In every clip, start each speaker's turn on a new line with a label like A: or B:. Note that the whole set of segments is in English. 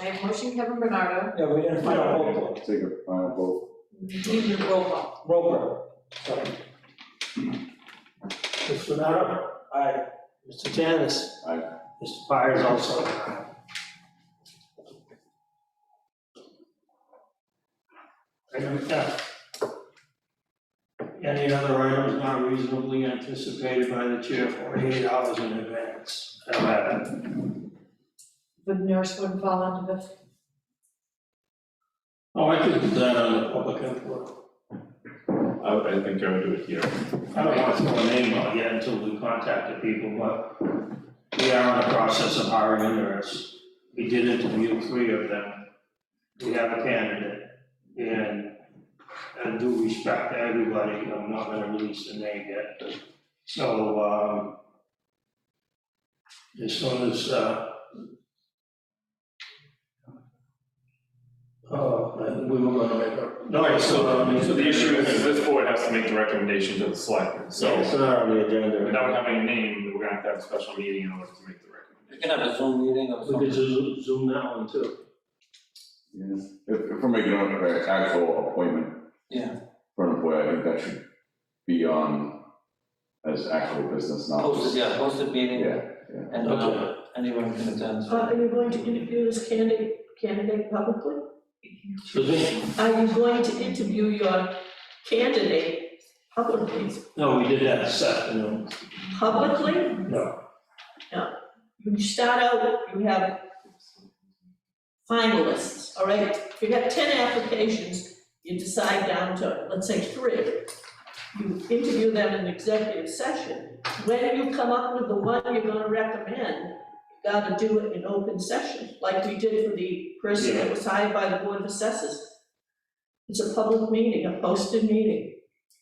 A: I have motion Kevin Bernardo,
B: Yeah, we didn't find a roll call.
C: Take a final vote.
A: need a roll call.
B: Roll call, sorry.
D: Mr. Bernardo,
B: Aye.
D: Mr. Janice.
C: Aye.
D: Mr. Byers also. aye. Item F. Any other items not reasonably anticipated by the chair forty-eight hours in advance. Eleven.
A: Would nurse would fall under the,
D: Oh, I could do that on the public input.
E: I, I think I would do it here.
D: I don't want to throw a name out yet until we contact the people, but we are in the process of hiring a nurse. We did interview three of them. We have a candidate, and I do respect to everybody, I'm not gonna release the name yet. So, um, as soon as, uh, oh, we were gonna make a.
E: All right, so, so the issue is that this board has to make the recommendation to the selectmen, so
D: It's not on the agenda.
E: without having a name, we're gonna have to have a special meeting in order to make the
B: We
E: recommendation.
B: can have a Zoom meeting or
D: We could
B: something.
D: zoom, zoom that one too.
C: Yes. If, if we're making an actual appointment.
B: Yeah.
C: For an employee, I think that should be on as actual business, not just.
B: Posted, yeah, posted meeting,
C: Yeah,
B: and uh,
D: Okay.
B: anyone can attend.
F: Uh, Are you going to interview this candidate, candidate publicly?
D: Excuse me?
F: Are you going to interview your candidate publicly?
D: No, we did that this afternoon.
F: Publicly?
D: No.
F: When you start out, you have finalists, all right? If you have ten applications, you decide down to, let's say, three. You interview them in executive session. When you come up with the one you're gonna recommend, you gotta do it in open session, like we did for the person that was hired by the Board of Assessors. It's a public meeting, a posted meeting.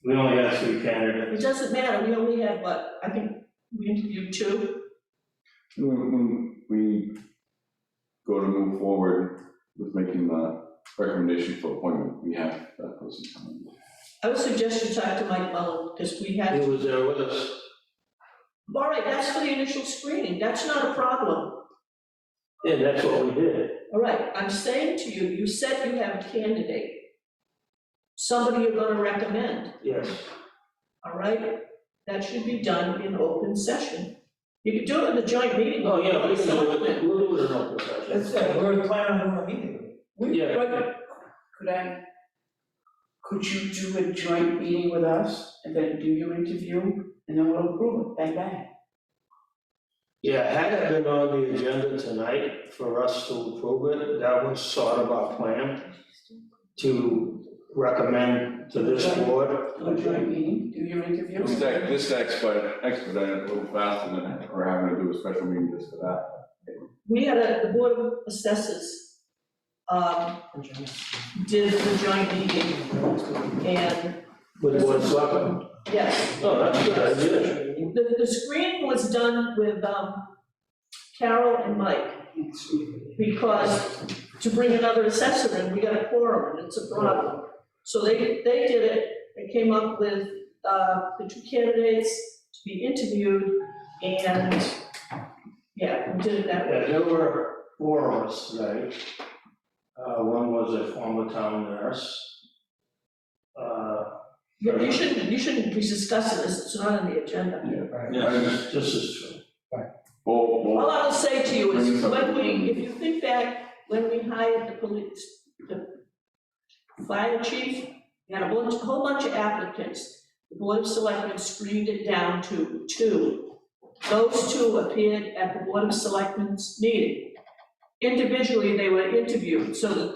D: We only had three candidates.
F: It doesn't matter, we only had, what, I think we interviewed two.
C: When, when we go to move forward with making the recommendation for appointment, we have that person coming.
F: I would suggest you talk to Mike Mullin, because we had,
D: He was there with us.
F: all right, that's for the initial screening, that's not a problem.
D: Yeah, that's what we did.
F: All right, I'm saying to you, you said you have a candidate. Somebody you're gonna recommend,
D: Yes.
F: all right? That should be done in open session. You could do it in a joint meeting.
D: Oh, yeah, we can do it. We'll do it in open
B: That's
D: session.
B: it, we're planning on a meeting.
D: Yeah.
G: But could I, could you do a joint meeting with us and then do your interview and then we'll approve it, bang bang?
D: Yeah, had it been on the agenda tonight for us to approve it, that was sort of our plan to recommend to this board.
G: Do a joint meeting, do your interview.
C: This act, this expedited, expedited a little faster than we're having to do a special meeting just for that.
F: We had a, the board of assessors, um, did the joint meeting, and,
D: With one selectman.
F: yes,
D: Oh, that's a good idea.
F: the, the screening was done with, um, Carol and Mike. because to bring another assessor in, we got a quorum, and it's a problem. So they, they did it, they came up with, uh, the two candidates to be interviewed, and, yeah, we did it that way.
D: Yeah, there were four of us today. Uh, one was a former town nurse. Uh,
F: You you shouldn't, you shouldn't be discussing this, it's not on the agenda.
D: This this is true.
C: Well, well,
F: All I will say to you is, when we, if you think back, when we hired the police, the fire chief, we had a bunch, a whole bunch of applicants. The board of selectmen screened it down to two. Those two appeared at the board of selectmen's meeting. Individually, they were interviewed, so that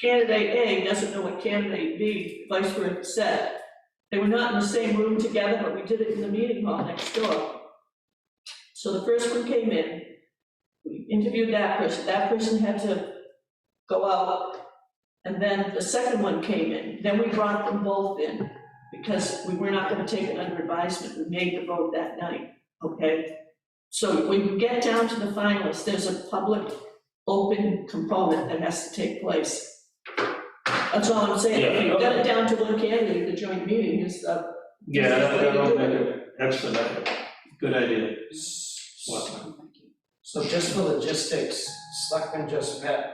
F: candidate A doesn't know what candidate B, vice versa, said. They were not in the same room together, but we did it in the meeting hall next door. So the first one came in, we interviewed that person, that person had to go out. And then the second one came in, then we brought them both in, because we were not gonna take it under advisement, we made the vote that night, okay? So when you get down to the finalists, there's a public, open component that has to take place. That's all I'm saying, if
D: Yeah,
F: you've got
D: okay.
F: it down to one candidate, the joint meeting is, uh,
D: Yeah,
F: This is the way to
D: that'll
F: do
D: make it expedite. Good idea. Selectmen.
B: So just for logistics, Selectmen just met,